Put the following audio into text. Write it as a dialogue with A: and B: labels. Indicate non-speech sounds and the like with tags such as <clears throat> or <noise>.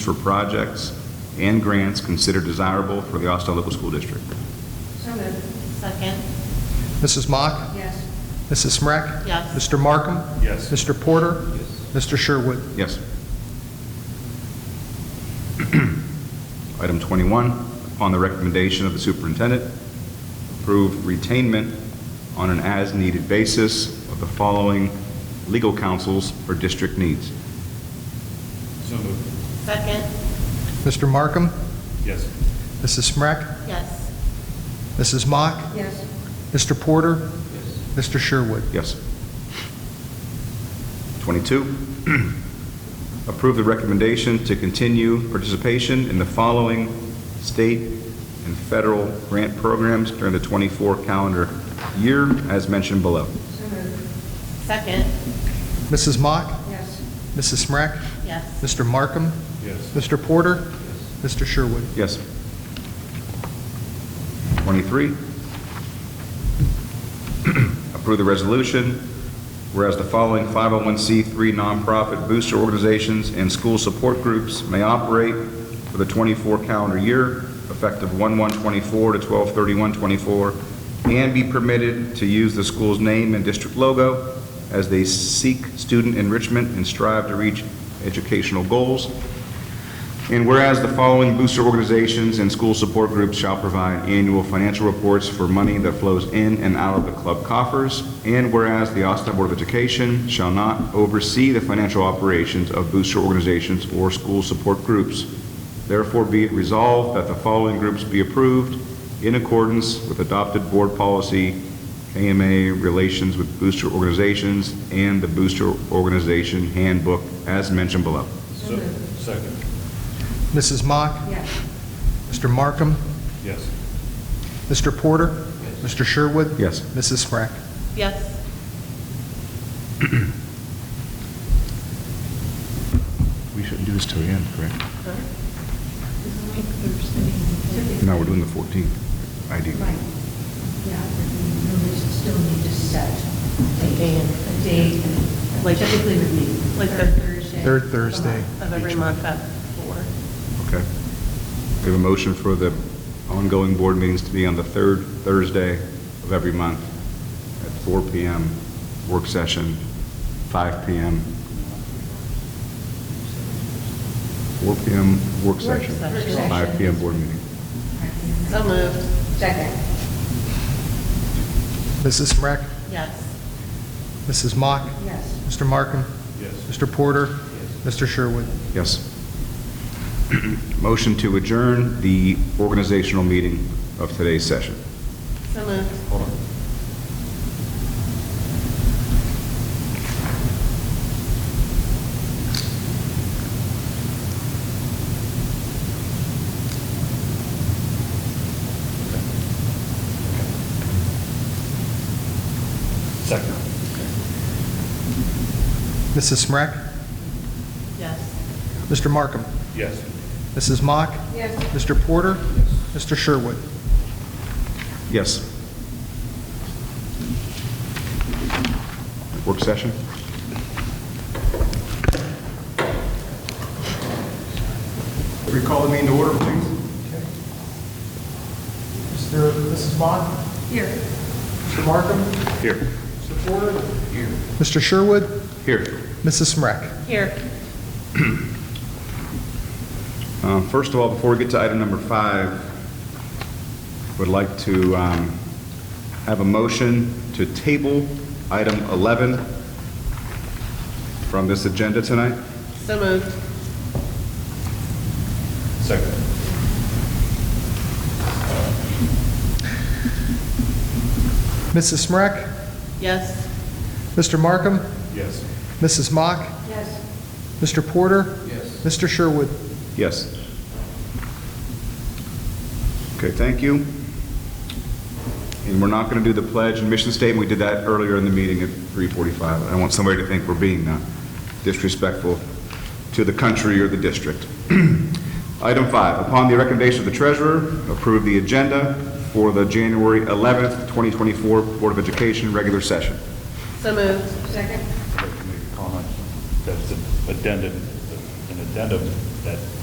A: for projects and grants considered desirable for the Austin Local School District.
B: So moved. Second.
C: Mrs. Mock?
B: Yes.
C: Mrs. Smrek?
B: Yes.
C: Mr. Markham?
D: Yes.
C: Mr. Porter? Mr. Sherwood?
A: Yes. <clears throat> Item 21, upon the recommendation of the superintendent, approve retainment on an as-needed basis of the following legal counsels for district needs.
D: So moved.
B: Second.
C: Mr. Markham?
D: Yes.
C: Mrs. Smrek?
B: Yes.
C: Mrs. Mock?
B: Yes.
C: Mr. Porter? Mr. Sherwood?
A: Yes. 22, <clears throat> approve the recommendation to continue participation in the following state and federal grant programs during the 24 calendar year, as mentioned below.
B: So moved. Second.
C: Mrs. Mock?
B: Yes.
C: Mrs. Smrek?
B: Yes.
C: Mr. Markham?
D: Yes.
C: Mr. Porter? Mr. Sherwood?
A: Yes. 23, approve the resolution, whereas the following 501c3 nonprofit booster organizations and school support groups may operate for the 24 calendar year, effective 1/1/24 to 12/31/24, and be permitted to use the school's name and district logo as they seek student enrichment and strive to reach educational goals. And whereas the following booster organizations and school support groups shall provide annual financial reports for money that flows in and out of the club coffers, and whereas the Austin Board of Education shall not oversee the financial operations of booster organizations or school support groups, therefore be it resolved that the following groups be approved in accordance with adopted board policy, AMA relations with booster organizations, and the booster organization handbook as mentioned below.
D: So Second.
C: Mrs. Mock?
B: Yes.
C: Mr. Markham?
D: Yes.
C: Mr. Porter? Mr. Sherwood?
A: Yes.
C: Mrs. Smrek?
B: Yes.
A: We shouldn't do this till the end, correct?
E: Thursday.
A: No, we're doing the 14th. I do.
E: Right. Yeah, but we really still need to set a date. A date.
B: Like-
E: Typically would be
B: Like the-
E: third Thursday.
C: Third Thursday.
B: Of every month at four.
A: Okay. We have a motion for the ongoing board meetings to be on the third Thursday of every month at 4 PM, work session, 5 PM. 4 PM, work session.
B: session.
A: 5 PM, board meeting.
B: So moved.
E: Second.
C: Mrs. Smrek?
B: Yes.
C: Mrs. Mock?
E: Yes.
C: Mr. Markham?
D: Yes.
C: Mr. Porter? Mr. Sherwood?
A: Yes. <clears throat> Motion to adjourn the organizational meeting of today's session.
B: So moved.
D: Hold on. Second.
C: Mrs. Smrek?
B: Yes.
C: Mr. Markham?
D: Yes.
C: Mrs. Mock?
B: Yes.
C: Mr. Porter? Mr. Sherwood?
A: Yes. Work session?
F: Recall the meeting to order, please.
C: Mr. Mrs. Mock?
E: Here.
C: Mr. Markham?
A: Here.
C: Mr. Porter? Mr. Sherwood?
A: Here.
C: Mrs. Smrek?
B: Here.
A: Uh, First of all, before we get to item number five, would like to um, have a motion to table item 11 from this agenda tonight.
B: So moved.
D: Second.
C: Mrs. Smrek?
B: Yes.
C: Mr. Markham?
D: Yes.
C: Mrs. Mock?
B: Yes.
C: Mr. Porter?
D: Yes.
C: Mr. Sherwood?
A: Yes. Okay, thank you. And we're not going to do the pledge and mission statement. We did that earlier in the meeting at 3:45. I don't want somebody to think we're being uh, disrespectful to the country or the district. <clears throat> Item five, upon the recommendation of the treasurer, approve the agenda for the January 11th, 2024 Board of Education regular session.
B: So moved.
E: Second.
D: Make a comment. That's an addendum, an addendum that